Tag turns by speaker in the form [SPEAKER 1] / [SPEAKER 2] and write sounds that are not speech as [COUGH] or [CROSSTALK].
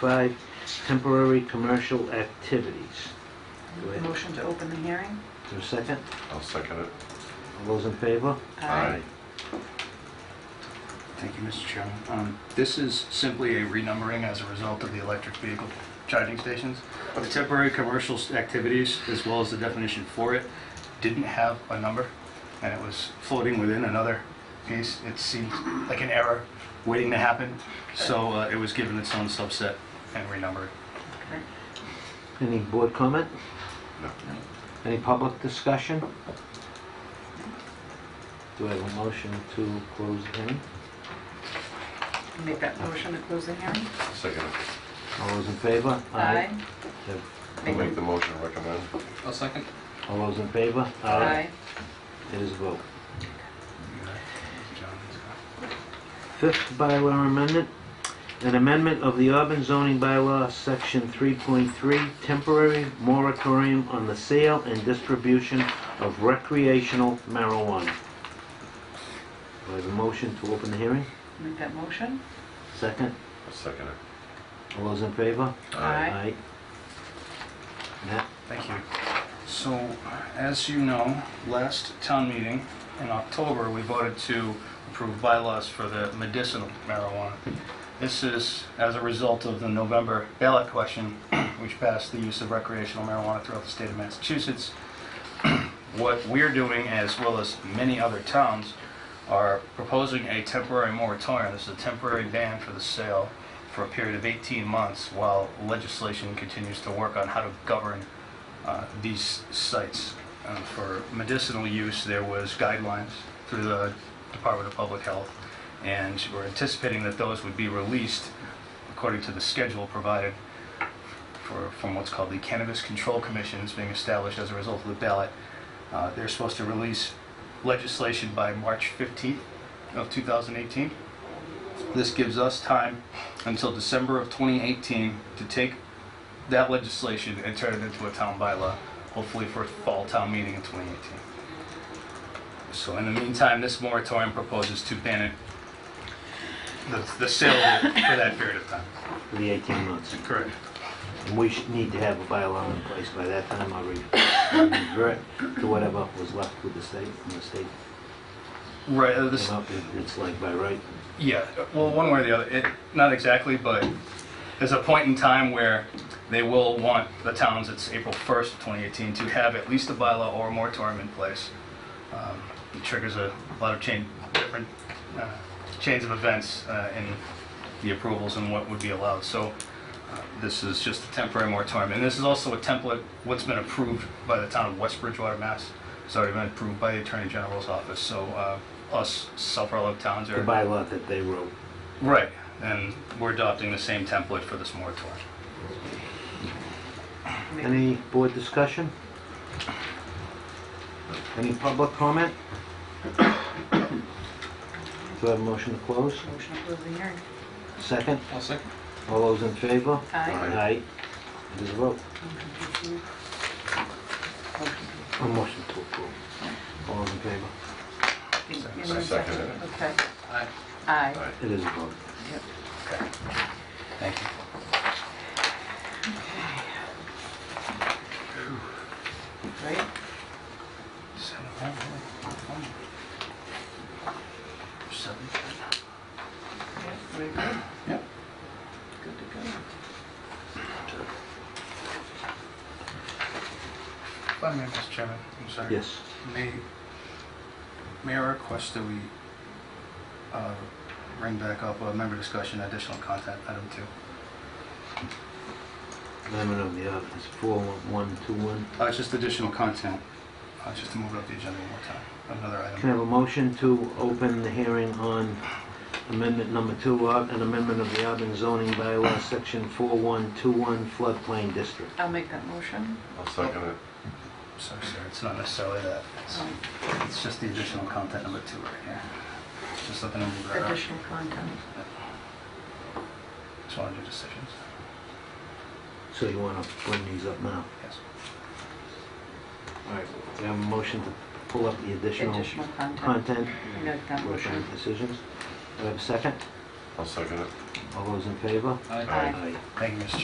[SPEAKER 1] Five, temporary commercial activities. Do I have
[SPEAKER 2] Motion to open the hearing?
[SPEAKER 1] a second?
[SPEAKER 3] I'll second it.
[SPEAKER 1] All those in favor?
[SPEAKER 4] Thank you, Mr. Chairman. Um, This is simply a renumbering as a result of the electric vehicle charging stations. The temporary commercial s- activities, as well as the definition for it, didn't have a number, and it was floating within another piece. It seemed like an error waiting to happen, so uh, it was given its own subset and renumbered.
[SPEAKER 2] Okay.
[SPEAKER 1] Any board comment?
[SPEAKER 3] No.
[SPEAKER 1] Any public discussion? Do I have a motion to close the hearing?
[SPEAKER 2] Make that motion to close the hearing?
[SPEAKER 3] Second it.
[SPEAKER 1] All those in favor?
[SPEAKER 3] I'll make the motion recommend.
[SPEAKER 5] I'll second.
[SPEAKER 1] All those in favor?
[SPEAKER 2] Aye.
[SPEAKER 1] It is a vote.
[SPEAKER 4] John,
[SPEAKER 1] Fifth bylaw amendment, an amendment of the Auburn zoning bylaw, section 3.3, temporary moratorium on the sale and distribution of recreational marijuana. Do I have a motion to open the hearing?
[SPEAKER 2] Make that motion?
[SPEAKER 1] Second?
[SPEAKER 3] I'll second it.
[SPEAKER 1] All those in favor?
[SPEAKER 2] Aye.
[SPEAKER 1] Matt?
[SPEAKER 4] Thank you. So, as you know, last town meeting in October, we voted to approve bylaws for the medicinal marijuana. This is as a result of the November ballot question, [CLEARS THROAT] which passed the use of recreational marijuana throughout the state of Massachusetts. [CLEARS THROAT] What we're doing, as well as many other towns, are proposing a temporary moratorium. This is a temporary ban for the sale for a period of 18 months while legislation continues to work on how to govern uh, these sites. Uh, For medicinal use, there was guidelines through the Department of Public Health, and we're anticipating that those would be released according to the schedule provided for, from what's called the Cannabis Control Commission that's being established as a result of the ballot. Uh, They're supposed to release legislation by March 15th of 2018. This gives us time until December of 2018 to take that legislation and turn it into a town bylaw, hopefully for a fall town meeting in 2018. So in the meantime, this moratorium proposes to ban it, the- the sale of it for that period of time.
[SPEAKER 1] For the 18 months.
[SPEAKER 4] Correct.
[SPEAKER 1] And we should need to have a bylaw in place by that time, I'll re- I'll revert to whatever was left with the state, and the state
[SPEAKER 4] Right, uh, this,
[SPEAKER 1] came up, it- it's like by right.
[SPEAKER 4] Yeah, well, one way or the other, it, not exactly, but there's a point in time where they will want the towns, it's April 1st, 2018, to have at least a bylaw or a moratorium in place. Um, It triggers a lot of chain, different uh, chains of events uh, in the approvals and what would be allowed. So uh, this is just a temporary moratorium, and this is also a template, what's been approved by the town of West Bridgewater, Mass. It's already been approved by the Attorney General's office, so uh, us, several other towns
[SPEAKER 1] The
[SPEAKER 4] are...
[SPEAKER 1] bylaw that they wrote.
[SPEAKER 4] Right, and we're adopting the same template for this moratorium.
[SPEAKER 2] Make-
[SPEAKER 1] Any board discussion? Any public comment? Do I have a motion to close?
[SPEAKER 2] Motion to close the hearing?
[SPEAKER 1] Second?
[SPEAKER 5] I'll second.
[SPEAKER 1] All those in favor?
[SPEAKER 2] Aye.
[SPEAKER 1] Aye. It is a vote.
[SPEAKER 2] Motion to approve. Motion to-
[SPEAKER 1] A motion to approve. All those in favor?
[SPEAKER 2] in- in the
[SPEAKER 3] I second
[SPEAKER 2] second,
[SPEAKER 3] it.
[SPEAKER 2] Okay.
[SPEAKER 5] Aye.
[SPEAKER 2] Aye.
[SPEAKER 3] Aye.
[SPEAKER 1] It is a vote.
[SPEAKER 2] Yep.
[SPEAKER 4] Okay. Thank you.
[SPEAKER 2] Right?
[SPEAKER 4] Seven.
[SPEAKER 2] Yep, Very good.
[SPEAKER 4] Yep.
[SPEAKER 2] Good to go.
[SPEAKER 4] If I may, Mr. Chairman, I'm sorry.
[SPEAKER 1] Yes.
[SPEAKER 4] May, may I request that we uh, bring back up a member discussion, additional content, item two?
[SPEAKER 1] Amendment of the ordinance, 4121.
[SPEAKER 4] Uh, It's just additional content, uh, just to move it up the agenda one more time, another item.
[SPEAKER 1] Can I have a motion to open the hearing on amendment number two, uh, an amendment of the Auburn zoning bylaw, section 4121 floodplain district?
[SPEAKER 2] I'll make that motion.
[SPEAKER 3] I'll second it.
[SPEAKER 4] Sorry, sir, it's not necessarily that. It's-
[SPEAKER 2] Um,
[SPEAKER 4] It's just the additional content number two right here. Just looking to move that up.
[SPEAKER 2] Additional content.
[SPEAKER 4] Just want to do decisions.
[SPEAKER 1] So you want to bring these up now?
[SPEAKER 4] Yes.
[SPEAKER 1] All right. Do I have a motion to pull up the additional
[SPEAKER 2] Additional content.
[SPEAKER 1] content?
[SPEAKER 2] Make that
[SPEAKER 1] Motion
[SPEAKER 2] motion.
[SPEAKER 1] and decisions? Do I have a second?
[SPEAKER 3] I'll second it.
[SPEAKER 1] All those in favor?
[SPEAKER 4] Aye.
[SPEAKER 2] Aye.
[SPEAKER 1] Aye.
[SPEAKER 4] Thank you, Mr.